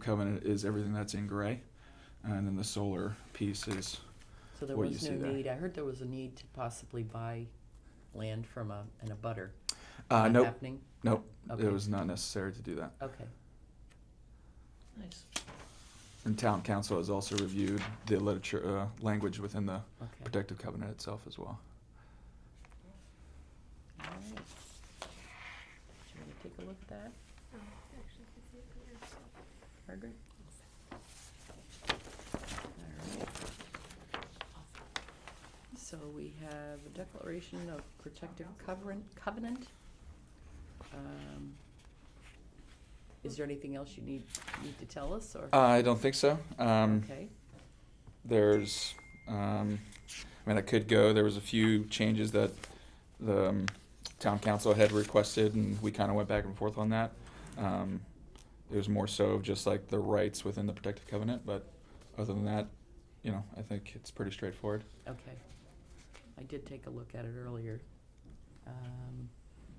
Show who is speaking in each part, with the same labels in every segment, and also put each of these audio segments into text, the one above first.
Speaker 1: covenant is everything that's in gray, and then the solar piece is,
Speaker 2: So there
Speaker 1: what you
Speaker 2: was
Speaker 1: see
Speaker 2: no
Speaker 1: there.
Speaker 2: need, I heard there was a need to possibly buy land from a, and a butter.
Speaker 1: uh,
Speaker 2: Not
Speaker 1: nope,
Speaker 2: Happening?
Speaker 1: nope,
Speaker 2: Okay.
Speaker 1: it was not necessary to do that.
Speaker 2: Okay,
Speaker 3: Nice.
Speaker 1: And town council has also reviewed the literature, uh, language within the
Speaker 2: okay.
Speaker 1: protective covenant itself as well.
Speaker 2: All right. Do you wanna take a look at that, Margaret? All right. So we have a declaration of protective covenant, covenant. Um, Is there anything else you need, need to tell us, or?
Speaker 1: Uh, I don't think so. Um,
Speaker 2: Okay,
Speaker 1: there's, um, I mean, I could go, there was a few changes that the um, town council had requested, and we kind of went back and forth on that. Um, it was more so of just like the rights within the protective covenant, but other than that, you know, I think it's pretty straightforward.
Speaker 2: okay. I did take a look at it earlier. Um,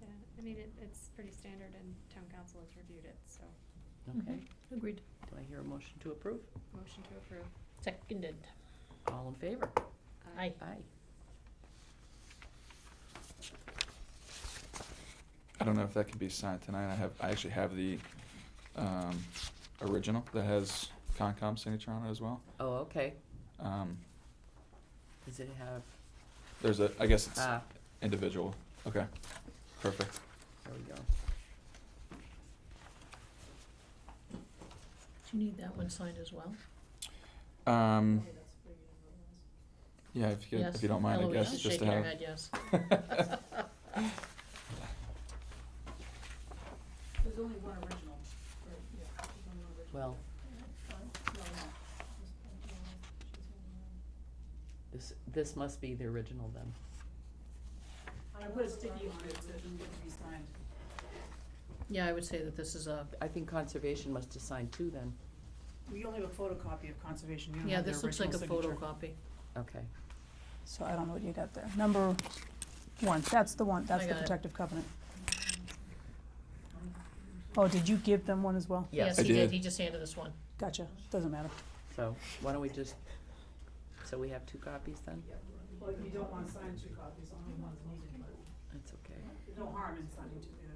Speaker 4: Yeah, I mean, it, it's pretty standard and town council has reviewed it, so
Speaker 3: Mm-hmm.
Speaker 2: Okay,
Speaker 3: Agreed.
Speaker 2: do I hear a motion to approve?
Speaker 4: motion to approve.
Speaker 3: Seconded.
Speaker 2: All in favor?
Speaker 3: Aye.
Speaker 2: Aye.
Speaker 1: I don't know if that can be signed tonight. I have, I actually have the, um, original that has Concom signature on it as well.
Speaker 2: Oh, okay.
Speaker 1: Um,
Speaker 2: Does it have,
Speaker 1: there's a, I guess it's
Speaker 2: ah,
Speaker 1: individual. Okay, perfect.
Speaker 2: there we go.
Speaker 3: Do you need that one signed as well?
Speaker 1: Um, yeah, if you,
Speaker 3: Yes. Oh,
Speaker 1: if you don't mind, I
Speaker 3: Eloise
Speaker 1: guess
Speaker 3: is
Speaker 1: just to
Speaker 3: shaking her
Speaker 1: have.
Speaker 3: head yes.
Speaker 5: There's only one original, or, yeah, there's only one original.
Speaker 2: Well,
Speaker 5: No, no. There's- there's only one. She's the only one.
Speaker 2: this, this must be the original then.
Speaker 5: I put a sticky on it, so it can get to be signed.
Speaker 3: Yeah, I would say that this is a,
Speaker 2: I think conservation must assign two then.
Speaker 5: We only have a photocopy of conservation, you don't
Speaker 3: yeah,
Speaker 5: have the
Speaker 3: this looks like a
Speaker 5: original signature.
Speaker 3: photocopy.
Speaker 2: Okay,
Speaker 6: So I don't know what you got there. Number one, that's the one, that's
Speaker 3: I
Speaker 6: the
Speaker 3: got it.
Speaker 6: protective covenant. Oh, did you give them one as well?
Speaker 2: yes.
Speaker 1: I
Speaker 3: he did,
Speaker 1: did.
Speaker 3: he just handed us one.
Speaker 6: Gotcha, doesn't matter.
Speaker 2: So why don't we just, so we have two copies then?
Speaker 5: Well, if you don't wanna sign two copies, only one's needed, but
Speaker 2: That's okay.
Speaker 5: there's no harm in signing two, yeah.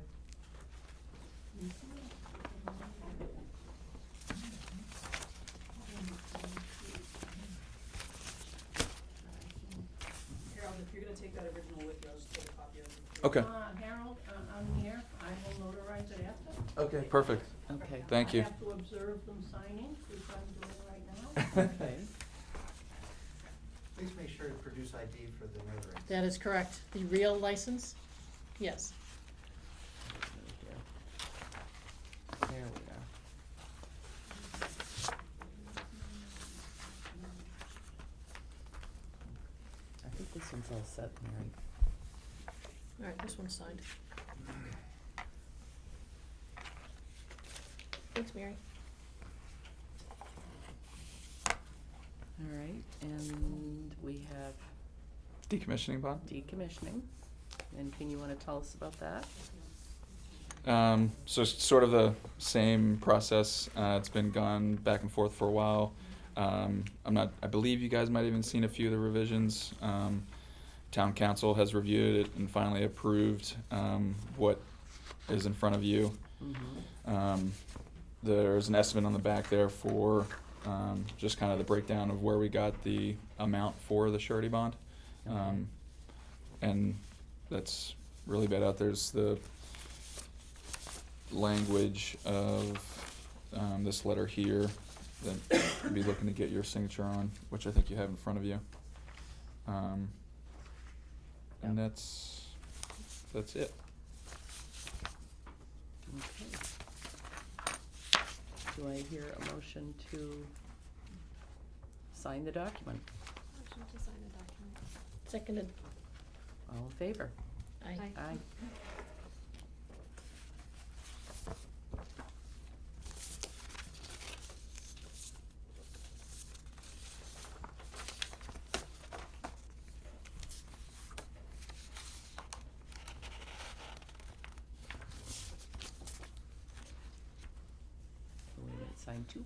Speaker 5: Harold, if you're gonna take that original with you, I'll just take a copy of it.
Speaker 1: Okay,
Speaker 7: Uh, Harold, uh, I'm here, I will notarize it after.
Speaker 1: okay, perfect.
Speaker 2: Okay.
Speaker 1: Thank you.
Speaker 7: I have to observe them signing, which I'm doing right now.
Speaker 2: Okay.
Speaker 8: Please make sure to produce ID for the notary.
Speaker 3: That is correct. The real license? Yes.
Speaker 2: There we are. I think this one's all set, Mary.
Speaker 3: All right, this one's signed. Thanks, Mary.
Speaker 2: All right, and we have
Speaker 1: Decommissioning bond?
Speaker 2: decommissioning. And can you wanna tell us about that?
Speaker 1: Um, so it's sort of the same process. Uh, it's been gone back and forth for a while. Um, I'm not. I believe you guys might have even seen a few of the revisions. Um, town council has reviewed it and finally approved um, what is in front of you.
Speaker 2: Mm-hmm.
Speaker 1: Um, there's an estimate on the back there for um, just kind of the breakdown of where we got the amount for the surety bond. Um, and that's really bad out. There's the language of um, this letter here that you'd be looking to get your signature on, which I think you have in front of you. Um, and
Speaker 2: Yep.
Speaker 1: that's that's it.
Speaker 2: Okay. Do I hear a motion to sign the document?
Speaker 4: Motion to sign the document.
Speaker 3: Seconded.
Speaker 2: All in favor?
Speaker 3: Aye.
Speaker 4: Aye.
Speaker 2: Aye. Wait a minute, Sign nine two